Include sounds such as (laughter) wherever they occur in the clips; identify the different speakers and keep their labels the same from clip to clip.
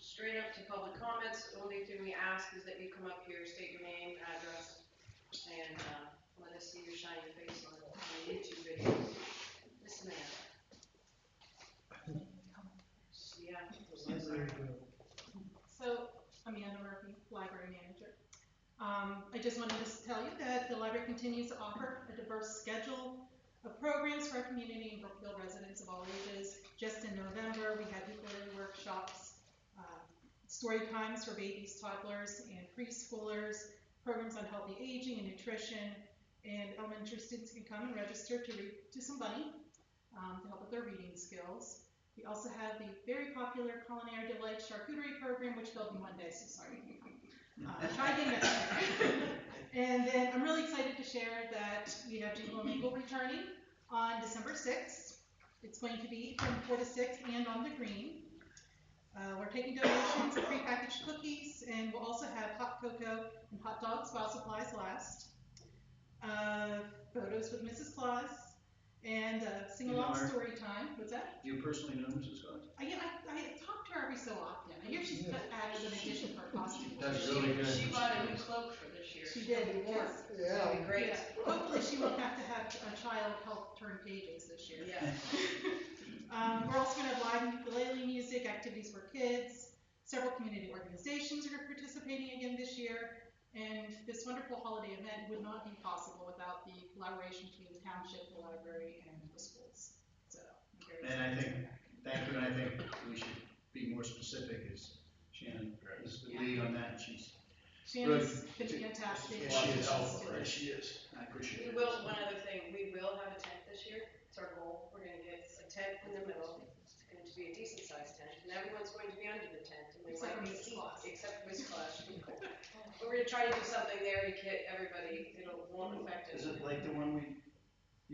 Speaker 1: straight up to public comments. The Only thing we ask is that you come up here, state your name, address, and, uh, let us see your shiny face on the YouTube video. This man. Yeah.
Speaker 2: So, Amanda Murphy, library manager. Um, I just wanted to s- tell you that the library continues to offer a diverse schedule of programs for our community and Brookfield residents of all ages. Just in November, we had equity workshops, uh, story times for babies, toddlers, and preschoolers, programs on healthy aging and nutrition, and elementary students can come and register to read to somebody um, to help with their reading skills. We also have the very popular Culinary Delight Charcuterie Program, which will be Monday, so sorry. if you come. Uh, Try again next time. (laughs) And then I'm really excited to share that we have Jingle and Mingle returning on December 6th. It's going to be from 4 to 6 and on the green. Uh, We're taking donations of prepackaged cookies, and we'll also have hot cocoa and hot dogs while supplies last. Uh, Photos with Mrs. Claus, and uh, sing-along
Speaker 3: Miller.
Speaker 2: story time. What's that?
Speaker 3: Do you personally know Mrs. Scott?
Speaker 2: I, yeah, I, I talk to her every so often. I hear she's
Speaker 4: Yeah.
Speaker 2: put added an addition for costume.
Speaker 3: That's
Speaker 1: She-
Speaker 3: really good.
Speaker 1: She bought a new cloak for this year.
Speaker 2: She did,
Speaker 1: It'll be warm.
Speaker 2: yes.
Speaker 1: It'll be
Speaker 4: Yeah,
Speaker 1: great.
Speaker 2: Yeah. Hopefully she won't have to have a child help turn pages this year.
Speaker 1: Yeah.
Speaker 2: Um, we're also gonna have live ukulele music, activities for kids. Several community organizations are participating again this year. And this wonderful holiday event would not be possible without the collaboration between the township, the library, and the schools. So. I'm very
Speaker 3: And I
Speaker 2: excited
Speaker 3: think-
Speaker 2: about that.
Speaker 3: Thank you, and I think we should be more specific as Shannon is the lead on that, and she's,
Speaker 2: Shannon's been fantastic.
Speaker 3: Yeah, she is.
Speaker 2: She's doing-
Speaker 3: she is, I appreciate
Speaker 1: We
Speaker 3: it.
Speaker 1: will, one other thing, we will have a tent this year, it's our goal, we're gonna get a tent in the middle, it's going to be a decent sized tent, and everyone's going to be under the tent, and we
Speaker 2: Except
Speaker 1: might
Speaker 2: for
Speaker 1: be
Speaker 2: Miss
Speaker 1: heat,
Speaker 2: Claus.
Speaker 1: except for Miss Claus, she's cold. But we're gonna try to do something there to get everybody, it'll, won't affect us.
Speaker 3: Is it like the one we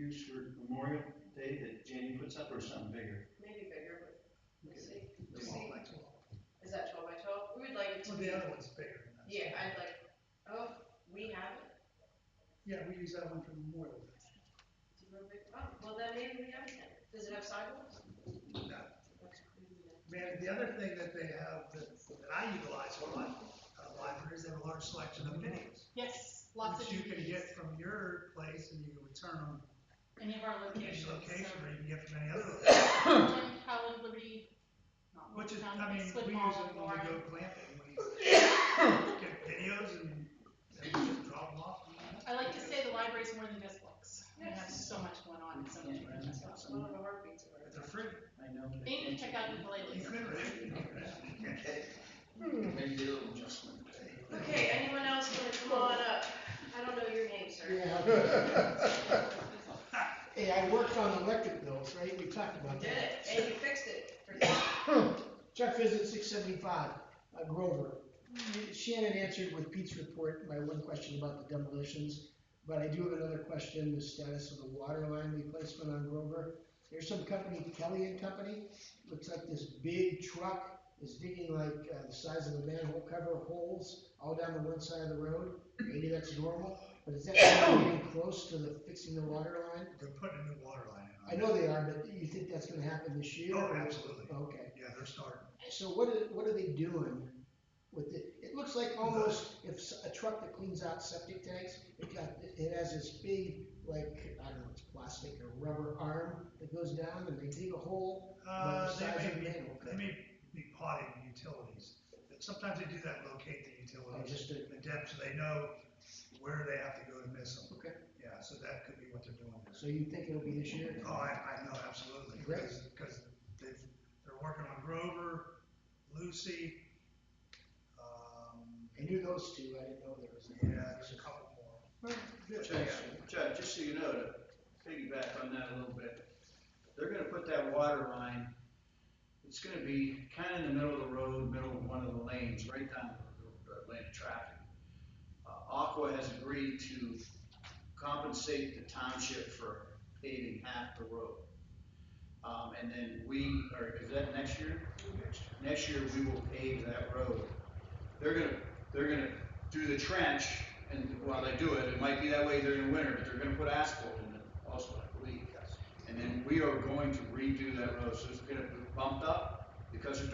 Speaker 3: used for Memorial Day that Jamie puts up, or something bigger?
Speaker 1: Maybe bigger, but we'll see,
Speaker 3: They won't like it.
Speaker 1: is that twelve by twelve? We would like it to
Speaker 4: well,
Speaker 1: be,
Speaker 4: the other one's bigger than that.
Speaker 1: yeah, I'd like, oh, we have it,
Speaker 4: Yeah, we use that one for Memorial
Speaker 1: It's a real big- oh, well, then maybe we have a tent, does it have sidewalks?
Speaker 4: Day. No.
Speaker 1: Okay, maybe not.
Speaker 4: Man, the other thing that they have that, that I utilize a lot, uh, libraries, they have a large selection of videos.
Speaker 2: Yes, lots of.
Speaker 4: Which you can
Speaker 2: DVDs.
Speaker 4: get from your place and you can return them
Speaker 2: Any of our
Speaker 4: to your
Speaker 2: locations.
Speaker 4: location
Speaker 2: so-
Speaker 4: or you can get from any other location.
Speaker 2: Portland, Howland, Liberty. not
Speaker 4: Which is,
Speaker 2: Morgantown,
Speaker 4: I mean,
Speaker 2: Split
Speaker 4: we
Speaker 2: Mall,
Speaker 4: use it when we
Speaker 2: Warren.
Speaker 4: go glamping, we
Speaker 2: (laughs)
Speaker 4: get videos and and we just drop them off.
Speaker 2: I like to say the library's more than just books. We have
Speaker 1: Yes.
Speaker 2: so much going on, and so much.
Speaker 3: Yeah, that's
Speaker 1: It's
Speaker 3: awesome.
Speaker 1: one of the heartbeats of our.
Speaker 4: But They're free.
Speaker 3: I know.
Speaker 2: They need to check out ukuleles.
Speaker 4: You could, right? You
Speaker 3: (laughs)
Speaker 4: could.
Speaker 3: Maybe do an adjustment.
Speaker 1: Okay, anyone else wanna come on up? I don't know your name, sir.
Speaker 5: Yeah. (laughs) Hey, I worked on electric bills, right? We talked
Speaker 1: You
Speaker 5: about
Speaker 1: did it,
Speaker 5: that.
Speaker 1: and you fixed it. for them.
Speaker 5: Chuck visit six seventy-five, uh, Grover. Shannon answered with Pete's report my one question about the demolitions, but I do have another question, the status of the water line replacement on Grover. There's some company, Kelly and Company, looks like this big truck is digging like, uh, the size of a manhole cover holes all down the one side of the road. Maybe that's normal, but is that getting close to the fixing the water line?
Speaker 4: They're putting a new water line
Speaker 5: I
Speaker 4: in.
Speaker 5: know they are, but you think that's gonna happen this year?
Speaker 4: Oh, absolutely.
Speaker 5: Okay,
Speaker 4: Yeah, they're starting.
Speaker 5: so what are, what are they doing with it? It looks like almost if s- a truck that cleans out septic tanks, it got, it has this big, like, I don't know, it's plastic or rubber arm that goes down and they dig a hole.
Speaker 4: Uh,
Speaker 5: Well,
Speaker 4: they
Speaker 5: size
Speaker 4: may
Speaker 5: of
Speaker 4: be,
Speaker 5: manhole
Speaker 4: they
Speaker 5: cover.
Speaker 4: may be potting utilities. Sometimes they do that, locate the
Speaker 5: I
Speaker 4: utilities,
Speaker 5: Oh, just, did-
Speaker 4: the depth, so they know where they have to go to miss them.
Speaker 5: Okay.
Speaker 4: Yeah, so that could be what they're doing.
Speaker 5: so you think it'll be this year?
Speaker 4: Oh, I, I know, absolutely,
Speaker 5: Great.
Speaker 4: because, because they've, they're working on Grover, Lucy, um,
Speaker 5: I knew those two, I didn't know there was.
Speaker 4: yeah, there's a couple more.
Speaker 5: Good.
Speaker 3: Chuck, Chuck, just so you know, to piggyback on that a little bit, they're gonna put that water line, it's gonna be kinda in the middle of the road, middle of one of the lanes, right down the, the lane of traffic. Uh, Aqua has agreed to compensate the township for paving half the road. Um, and then we, or is that next year? Next year, we will pave that road. They're gonna, they're gonna do the trench, and while they do it, it might be that way during the winter, but they're gonna put asphalt in it also, I believe. And then we are going to redo that road, so it's gonna be bumped up because they're